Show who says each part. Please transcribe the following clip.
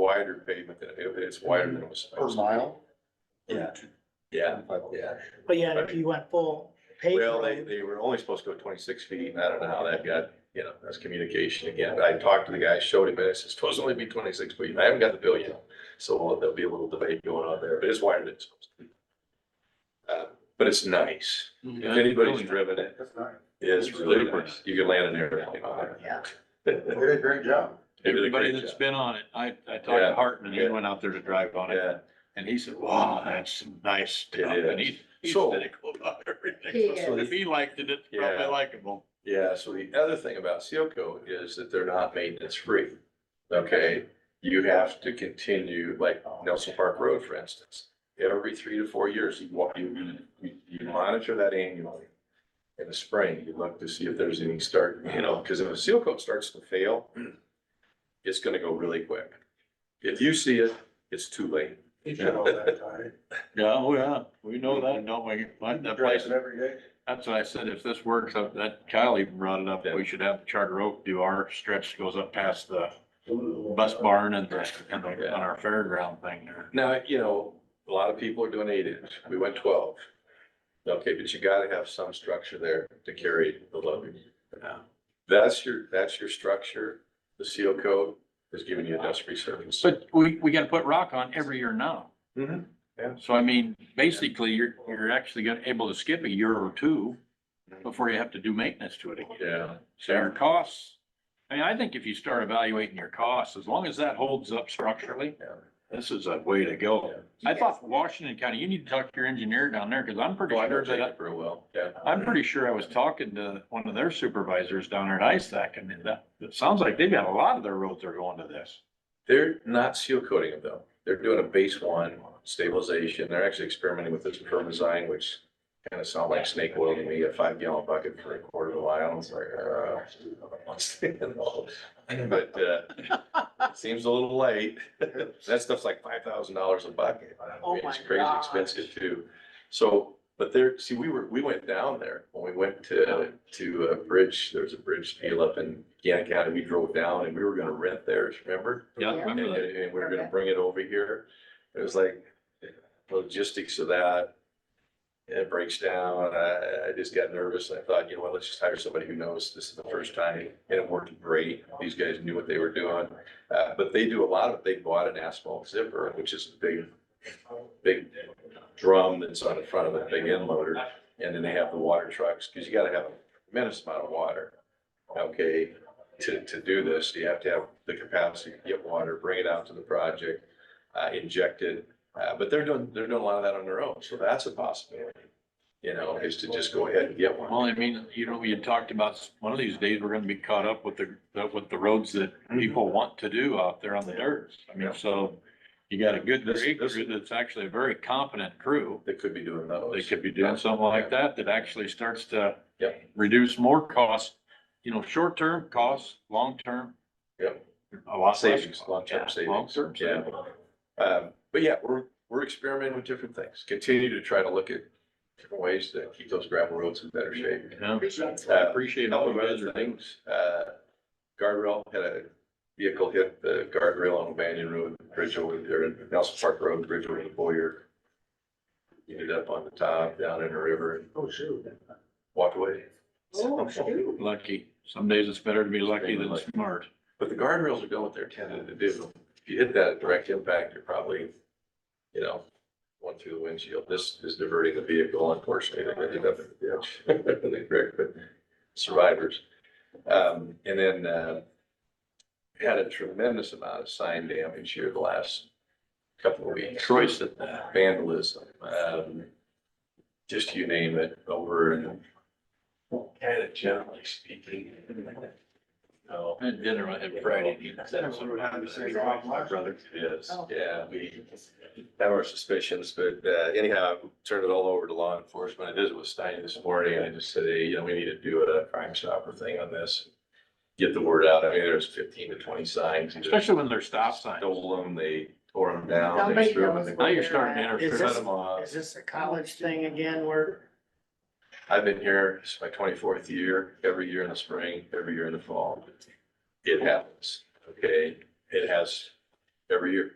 Speaker 1: wider pavement than, if it's wider than it was.
Speaker 2: Per mile?
Speaker 1: Yeah. Yeah, yeah.
Speaker 3: But yeah, if you went full paved
Speaker 1: Well, they,
Speaker 3: road,
Speaker 1: they were only supposed to go twenty-six feet, and I don't know how that got, you know, that's communication again. I talked to the guy, showed him, and I said, it's supposed to only be twenty-six feet, and I haven't got the bill yet. So there'll be a little debate going on there, but it's wider than it's supposed to be. Uh, But it's nice. If anybody's driven it,
Speaker 2: That's nice.
Speaker 1: it's really nice. You can land an airplane on it.
Speaker 3: Yeah.
Speaker 2: They did a great job.
Speaker 1: They did a
Speaker 4: Everybody
Speaker 1: great
Speaker 4: that's
Speaker 1: job.
Speaker 4: been on it, I, I talked
Speaker 1: Yeah,
Speaker 4: to Hartman, he
Speaker 1: yeah.
Speaker 4: went out there to drive on it,
Speaker 1: Yeah.
Speaker 4: and he said, wow, that's some nice stuff,
Speaker 1: It
Speaker 4: and
Speaker 1: is.
Speaker 4: he's, he's
Speaker 1: So-
Speaker 4: cynical about
Speaker 5: He
Speaker 4: everything.
Speaker 5: is.
Speaker 4: So if he liked it, it's probably
Speaker 1: Yeah.
Speaker 4: likable.
Speaker 1: Yeah, so the other thing about Sealcoat is that they're not maintenance free. Okay, you have to continue, like Nelson Park Road, for instance. Every three to four years, you walk, you, you- you monitor that annually. In the spring, you look to see if there's any start, you know, because if a seal coat starts to fail, it's gonna go really quick. If you see it, it's too late.
Speaker 2: He should all that time.
Speaker 4: Yeah, oh yeah, we know that, don't we? Like, That
Speaker 2: Drives
Speaker 4: place,
Speaker 2: it every day.
Speaker 4: that's what I said, if this works, uh, that Kyle even brought it up,
Speaker 1: Yeah.
Speaker 4: we should have Charter Oak do our stretch goes up past the bus barn and the, and the, on our fairground thing there.
Speaker 1: Now, you know, a lot of people are doing eight inch, we went twelve. Okay, but you gotta have some structure there to carry the load.
Speaker 4: Yeah.
Speaker 1: That's your, that's your structure, the seal code is giving you a dust free surface.
Speaker 4: But we, we gotta put rock on every year now.
Speaker 1: Mhm, yeah.
Speaker 4: So I mean, basically, you're, you're actually gonna able to skip a year or two before you have to do maintenance to it again.
Speaker 1: Yeah,
Speaker 4: So your costs, I mean, I think if you start evaluating your costs, as long as that holds up structurally,
Speaker 1: Yeah.
Speaker 4: this is a way to go. I thought Washington County, you need to talk to your engineer down there, cause I'm pretty
Speaker 1: well, I
Speaker 4: sure
Speaker 1: don't take
Speaker 4: Oh, that,
Speaker 1: it real well, yeah.
Speaker 4: I'm pretty sure I was talking to one of their supervisors down there at ISAC, and that, it sounds like they've got a lot of their roads are going to this.
Speaker 1: They're not seal coating them though. They're doing a base one stabilization. They're actually experimenting with this perm design, which kind of sound like snake oil to me, a five gallon bucket for a quarter of a mile. It's like, uh, I don't understand all. but, uh, it seems a little light. That stuff's like five thousand dollars a bucket. I mean,
Speaker 3: Oh
Speaker 1: It's
Speaker 3: my
Speaker 1: crazy
Speaker 3: gosh.
Speaker 1: expensive too. So, but there, see, we were, we went down there when we went to, to a bridge. There's a bridge deal up in Gannett County. We drove down and we were gonna rent theirs, remember?
Speaker 4: Yeah, I
Speaker 1: And,
Speaker 4: remember that.
Speaker 1: and we were gonna
Speaker 5: Okay.
Speaker 1: bring it over here. It was like logistics of that. It breaks down. I, I just got nervous. and I thought, you know what, let's just hire somebody who knows. This is the first time. And it worked great. These guys knew what they were doing. Uh, but they do a lot of, they bought an asphalt zipper, which is a big, big drum that's on the front of a big end loader. And then they have the water trucks, because you gotta have a tremendous amount of water. Okay, to, to do this, you have to have the capacity to get water, bring it out to the project, uh, inject it. Uh, but they're doing, they're doing a lot of that on their own, so that's a possibility, you know, is to just go ahead and get one.
Speaker 4: Well, I mean, you know, you talked about one of these days, we're gonna be caught up with the, uh, with the roads that
Speaker 1: Mm-hmm.
Speaker 4: people want to do out there on the dirt. I mean, so you got a good
Speaker 1: This-
Speaker 4: crew
Speaker 1: this-
Speaker 4: that's actually a very competent crew.
Speaker 1: They could be doing
Speaker 4: They
Speaker 1: those.
Speaker 4: could be doing something like that that actually starts to
Speaker 1: Yep.
Speaker 4: reduce more costs, you know, short-term costs, long-term.
Speaker 1: Yep.
Speaker 4: A lot less
Speaker 1: Savings,
Speaker 4: costs.
Speaker 1: long-term
Speaker 4: Yeah,
Speaker 1: savings.
Speaker 4: long-term
Speaker 1: Yeah.
Speaker 4: savings.
Speaker 1: Um, but yeah, we're, we're experimenting with different things, continue to try to look at different ways to keep those gravel roads in better shape.
Speaker 4: Yeah.
Speaker 5: Appreciate
Speaker 4: I appreciate all
Speaker 1: Couple
Speaker 4: you
Speaker 1: of
Speaker 4: guys
Speaker 1: other
Speaker 4: are doing.
Speaker 1: things, uh, guardrail, had a vehicle hit the guardrail on Banyan Road, bridge over there, Nelson Park Road, bridge over the Boyer. Ended up on the top, down in the river, and
Speaker 2: Oh, shoot.
Speaker 1: walked away.
Speaker 5: Oh, shoot.
Speaker 4: Lucky. Some days it's better to be lucky than smart.
Speaker 1: But the guardrails are doing what they're intended to do. If you hit that at direct impact, you're probably, you know, going through the windshield. This is diverting the vehicle, unfortunately, they ended up in the ditch. They wrecked, but survivors. Um, and then, uh, had a tremendous amount of sign damage here the last couple of weeks.
Speaker 4: Troy said that.
Speaker 1: Vandalism, um, just you name it, over and kind of generally speaking. No.
Speaker 4: I had dinner with him Friday. He said something. My brother.
Speaker 1: Yes,
Speaker 5: Oh.
Speaker 1: yeah, we have our suspicions, but uh, anyhow, I turned it all over to law enforcement. I visited with Stein this morning and I just said, hey, you know, we need to do a crime stopper thing on this. Get the word out. I mean, there's fifteen to twenty signs.
Speaker 4: Especially when they're stop signs.
Speaker 1: Stole them, they tore them down, they
Speaker 5: Nobody
Speaker 1: threw them
Speaker 5: knows
Speaker 1: in the.
Speaker 4: Now you're starting to enter.
Speaker 3: Is
Speaker 1: cut
Speaker 3: this-
Speaker 1: 'em off.
Speaker 3: is this a college thing again where
Speaker 1: I've been here, it's my twenty-fourth year, every year in the spring, every year in the fall. It happens, okay? It has every year.